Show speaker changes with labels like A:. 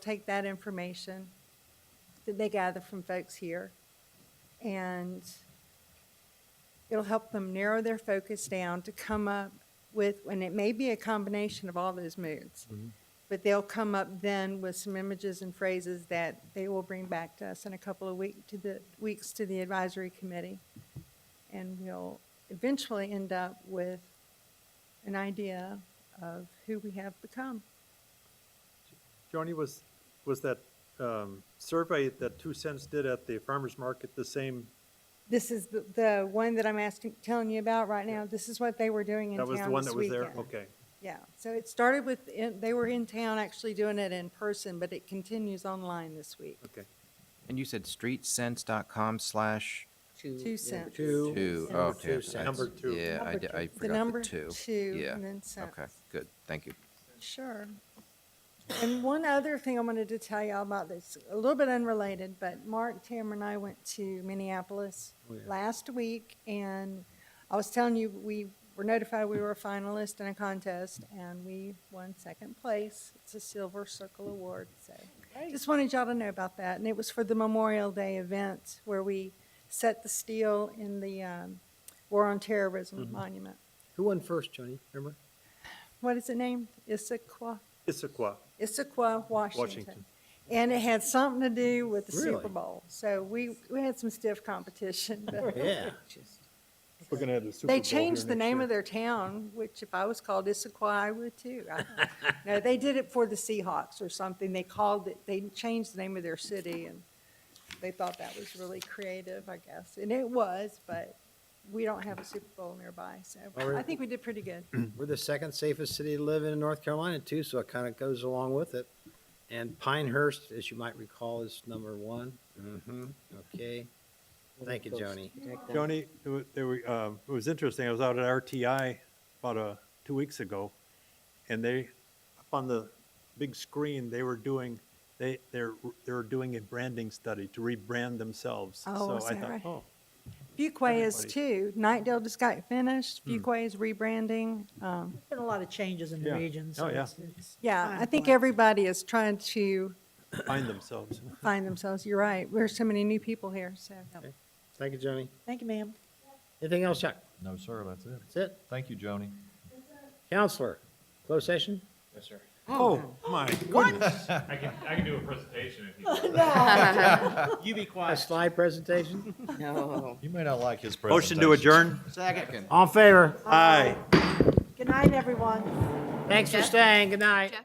A: take that information that they gather from folks here, and it'll help them narrow their focus down to come up with, and it may be a combination of all those moods, but they'll come up then with some images and phrases that they will bring back to us in a couple of week, to the, weeks to the advisory committee. And we'll eventually end up with an idea of who we have become.
B: Joni, was, was that um, survey that Two Cents did at the farmer's market the same?
A: This is the, the one that I'm asking, telling you about right now. This is what they were doing in
B: That
A: town
B: was
A: this
B: the one that was there?
A: weekend.
B: Okay.
A: Yeah, so it started with, in- they were in town actually doing it in person, but it continues online this week.
B: Okay.
C: And you said streetsense.com slash
A: Two cents.
D: Two.
A: Number
C: two.
D: Oh,
C: Okay.
D: two
C: I-
D: cents.
B: Number two.
C: Yeah, I,
A: Number
C: di-
A: two.
C: I
A: The
C: forgot
A: number
C: the two.
A: two,
C: Yeah.
A: and then
C: Okay,
A: cents.
C: good. Thank you.
A: Sure. And one other thing I wanted to tell y'all about that's a little bit unrelated, but Mark, Tamara, and I went to Minneapolis
B: Oh, yeah.
A: last week, and I was telling you, we were notified we were a finalist in a contest, and we won second place. It's a Silver Circle Award, so just wanted y'all to know about that. And it was for the Memorial Day event where we set the steel in the um, War on Terrorism
B: Mm-hmm.
A: monument.
D: Who won first, Johnny? Remember?
A: What is it named? Issaquah?
B: Issaquah.
A: Issaquah, Washington.
B: Washington.
A: And it had something to do with the Super
D: Really?
A: Bowl. So we, we had some stiff competition, but
D: Yeah.
B: We're going to have the Super
A: they changed the name of their town, which if I was called Issaquah, I would too. I don't No, they did it for the Seahawks or something. They called it, they changed the name of their city and they thought that was really creative, I guess. And it was, but we don't have a Super Bowl nearby, so
B: Oh,
D: All right.
A: I think we did pretty good.
D: We're the second safest city to live in in North Carolina too, so it kind of goes along with it. And Pinehurst, as you might recall, is number one. Mm-hmm. Okay. Thank you, Joni.
B: Joni, it wa- there were, um, it was interesting. I was out at RTI about uh two weeks ago, and they, up on the big screen, they were doing, they, they're, they're doing a branding study to rebrand themselves.
A: Oh,
B: So
A: is
B: I
A: that
B: thought,
A: right?
B: Oh,
A: Fuquay is
B: Everybody. Hmm.
A: too. Nightdale just got finished. Fuquay is rebranding. Um,
E: Been a lot of changes in the
B: Yeah.
E: region. so
B: Oh, yeah.
E: it's- it's
A: Yeah,
E: fine
A: I think
E: point.
A: everybody is trying to
B: find themselves.
A: find themselves. You're right. There's so many new people here, so.
D: Thank you, Joni.
E: Thank you, ma'am.
D: Anything else, Chuck?
F: No, sir, that's it.
D: That's it.
F: Thank you, Joni.
D: Counselor, closed session?
B: Oh, my goodness.
G: I can, I can do a presentation if you want.
D: A slide presentation?
F: You may not like his
B: Motion
F: presentation.
B: to adjourn?
D: All in favor?
B: Aye.
E: Good night, everyone.
D: Thanks for staying. Good night.